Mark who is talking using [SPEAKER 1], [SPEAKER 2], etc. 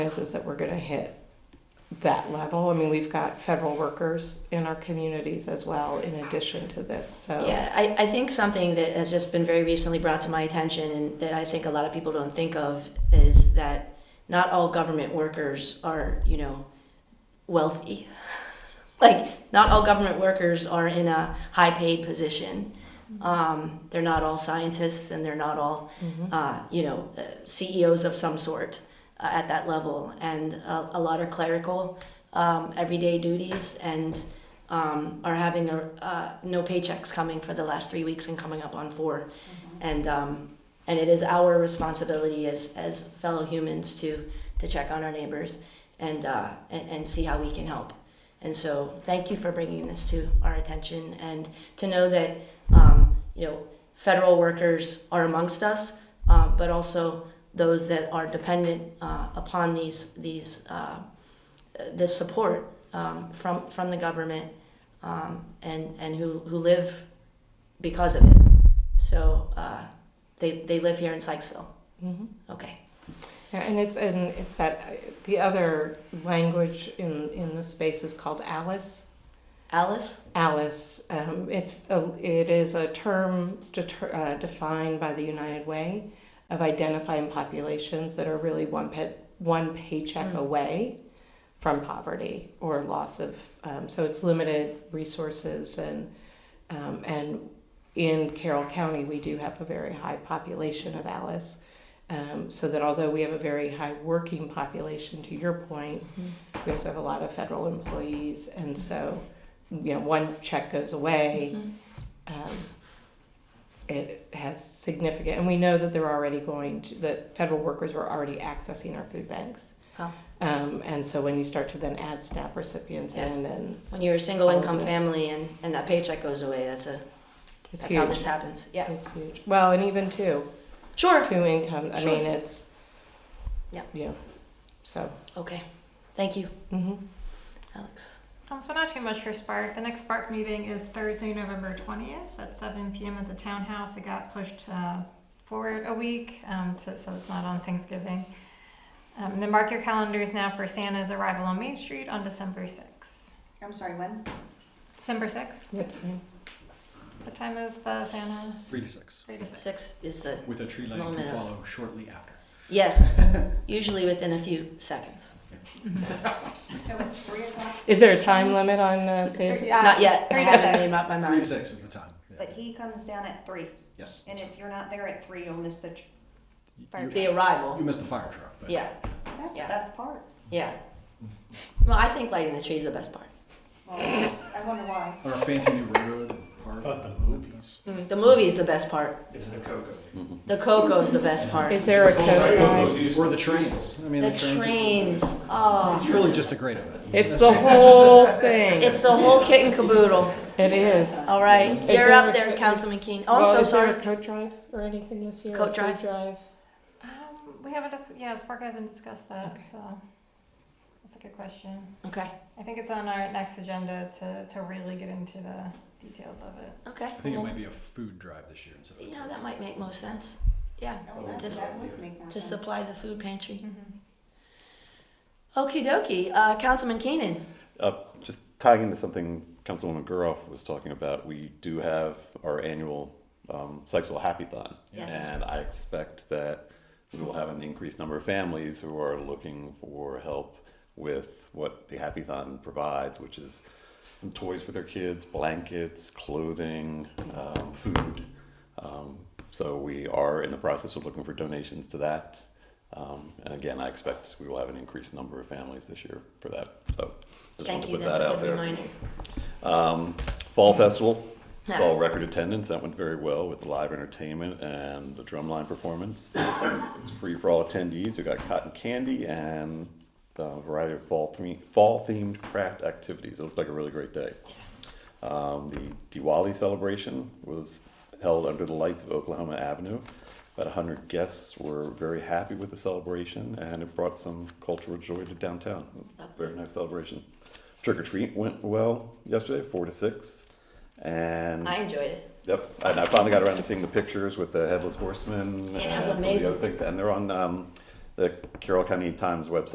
[SPEAKER 1] is, is that we're gonna hit that level. I mean, we've got federal workers in our communities as well, in addition to this, so.
[SPEAKER 2] Yeah, I, I think something that has just been very recently brought to my attention and that I think a lot of people don't think of is that not all government workers are, you know, wealthy. like, not all government workers are in a high paid position. Um, they're not all scientists and they're not all,
[SPEAKER 1] Mm-hmm.
[SPEAKER 2] uh, you know, uh, CEOs of some sort uh, at that level. And uh, a lot are clerical, um, everyday duties and um, are having a, uh, no paychecks coming for the last three weeks and coming up on 4 And, um, and it is our responsibility as, as fellow humans to, to check on our neighbors and, uh, and, and see how we can help. And so thank you for bringing this to our attention and to know that, um, you know, federal workers are amongst us, um, but also those that are dependent uh, upon these, these uh, this support um, from from the government um, and and who who live because of it. So uh, they they live here in Sykesville.
[SPEAKER 1] Mhm.
[SPEAKER 2] Okay.
[SPEAKER 1] Yeah, and it's, and it's that, uh, the other language in, in this space is called Alice.
[SPEAKER 2] Alice.
[SPEAKER 1] Alice, um, it's a, it is a term deter, uh, defined by the United Way of identifying populations that are really one pay, one paycheck
[SPEAKER 2] Mm.
[SPEAKER 1] away from poverty or loss of um, so it's limited resources and um, and in Carroll County we do have a very high population of Alice. Um, so that although we have a very high working population, to your point,
[SPEAKER 2] Mm-hmm.
[SPEAKER 1] we also have a lot of federal employees, and so you know one check goes away, um, it has significant, and we know that they're already going to that federal workers are already accessing our food banks.
[SPEAKER 2] Oh.
[SPEAKER 1] Um, and so when you start to then add SNAP recipients
[SPEAKER 2] Yeah.
[SPEAKER 1] in, and
[SPEAKER 2] When you're a single
[SPEAKER 1] All of
[SPEAKER 2] income
[SPEAKER 1] this.
[SPEAKER 2] family and, and that paycheck goes away, that's a
[SPEAKER 1] it's
[SPEAKER 2] that's how
[SPEAKER 1] huge.
[SPEAKER 2] this happens. Yeah.
[SPEAKER 1] It's huge. Well, and even two,
[SPEAKER 2] Sure.
[SPEAKER 1] two incomes. I
[SPEAKER 2] Sure.
[SPEAKER 1] mean, it's
[SPEAKER 2] Yeah.
[SPEAKER 1] yeah. So
[SPEAKER 2] Okay. Thank you,
[SPEAKER 1] hmm
[SPEAKER 2] Alex.
[SPEAKER 3] Um, so not too much for Spark. The next Spark meeting is Thursday, November twentieth at seven PM at the townhouse. It got pushed, uh, forward a week, um, so, so it's not on Thanksgiving. Um, and then mark your calendars now for Santa's arrival on Main Street on December sixth.
[SPEAKER 4] I'm sorry, when?
[SPEAKER 3] December sixth? What time is the Santa?
[SPEAKER 5] Three to six,
[SPEAKER 3] Three to six.
[SPEAKER 2] Six is the
[SPEAKER 5] with a tree lighting to
[SPEAKER 2] Moment of-
[SPEAKER 5] follow shortly after.
[SPEAKER 2] yes. usually within a few seconds.
[SPEAKER 4] So at three o'clock?
[SPEAKER 1] Is there a time limit on uh,
[SPEAKER 3] Three-
[SPEAKER 1] Santa?
[SPEAKER 3] yeah,
[SPEAKER 2] Not yet. I
[SPEAKER 3] Three to
[SPEAKER 2] haven't made
[SPEAKER 3] six.
[SPEAKER 2] up my
[SPEAKER 5] Three to
[SPEAKER 2] mind.
[SPEAKER 5] six is the time. yeah.
[SPEAKER 4] But he comes down at three,
[SPEAKER 5] Yes.
[SPEAKER 4] and if you're not there at three, you'll miss the, tr-
[SPEAKER 5] You-
[SPEAKER 4] fire
[SPEAKER 5] you-
[SPEAKER 2] The
[SPEAKER 5] You
[SPEAKER 2] arrival.
[SPEAKER 5] missed the fire truck, but.
[SPEAKER 2] Yeah.
[SPEAKER 4] that's the
[SPEAKER 2] Yeah.
[SPEAKER 4] best part.
[SPEAKER 2] Yeah. Well, I think lighting the tree is the best part.
[SPEAKER 4] Well, I wonder why.
[SPEAKER 5] Or a fancy new road and park.
[SPEAKER 6] But the movies.
[SPEAKER 2] The movie's the best part.
[SPEAKER 6] It's the Coco.
[SPEAKER 2] The Coco's the best part.
[SPEAKER 1] Is there a code? line?
[SPEAKER 5] Or the trains, I mean, the
[SPEAKER 2] the
[SPEAKER 5] trains.
[SPEAKER 2] trains.
[SPEAKER 5] It's
[SPEAKER 2] Oh,
[SPEAKER 5] really just a great event.
[SPEAKER 1] It's the whole thing.
[SPEAKER 2] it's the whole kit and caboodle.
[SPEAKER 1] It is.
[SPEAKER 2] All right, you're
[SPEAKER 1] there a-
[SPEAKER 2] up there, Councilman Keene. Oh, I'm
[SPEAKER 1] well,
[SPEAKER 2] so
[SPEAKER 1] is
[SPEAKER 2] sorry.
[SPEAKER 1] There a coat drive or anything this year?
[SPEAKER 2] Coat
[SPEAKER 1] Food
[SPEAKER 2] drive?
[SPEAKER 1] drive?
[SPEAKER 3] Um, we haven't, dis- yeah, Spark hasn't discussed that,
[SPEAKER 2] Okay.
[SPEAKER 3] so that's a good question.
[SPEAKER 2] Okay,
[SPEAKER 3] I think it's on our next agenda to, to really get into the details of it.
[SPEAKER 2] okay.
[SPEAKER 5] I think it might be a food drive this year instead of. a
[SPEAKER 2] You
[SPEAKER 5] cook.
[SPEAKER 2] know that might make most sense. Yeah,
[SPEAKER 4] Oh, that,
[SPEAKER 2] Just-
[SPEAKER 4] that would make more
[SPEAKER 2] to
[SPEAKER 4] sense.
[SPEAKER 2] supply the food pantry.
[SPEAKER 3] Mm-hmm.
[SPEAKER 2] Okie dokie, uh, Councilman Keenan.
[SPEAKER 7] Uh, just tying into something Councilwoman Guroff was talking about, we do have our annual um, Sexual Happy-Thon.
[SPEAKER 2] Yes.
[SPEAKER 7] And I expect that we will have an increased number of families who are looking for help with what the Happy-Thon provides, which is some toys for their kids, blankets, clothing, um, food. Um, so we are in the process of looking for donations to that. Um, and again, I expect we will have an increased number of families this year for that. So just
[SPEAKER 2] Thank
[SPEAKER 7] want to
[SPEAKER 2] you.
[SPEAKER 7] put
[SPEAKER 2] That's
[SPEAKER 7] that
[SPEAKER 2] a
[SPEAKER 7] out
[SPEAKER 2] good
[SPEAKER 7] there.
[SPEAKER 2] reminder.
[SPEAKER 7] Um, Fall Festival
[SPEAKER 2] Yeah.
[SPEAKER 7] saw record attendance. That went very well with the live entertainment and the drumline performance. it's free for all attendees. We got cotton candy and a variety of fall theme, fall themed craft activities. It looked like a really great day. Um, the Diwali celebration was held under the lights of Oklahoma Avenue. About 100 guests were very happy with the celebration, and it brought some cultural joy to downtown. Very nice celebration. Trick or treat went well yesterday, four to six, and
[SPEAKER 2] I enjoyed it.
[SPEAKER 7] yep, and I finally got around to seeing the pictures with the headless horseman
[SPEAKER 2] It was
[SPEAKER 7] and some of
[SPEAKER 2] amazing.
[SPEAKER 7] the other things, and they're on um, the Carroll County Times website.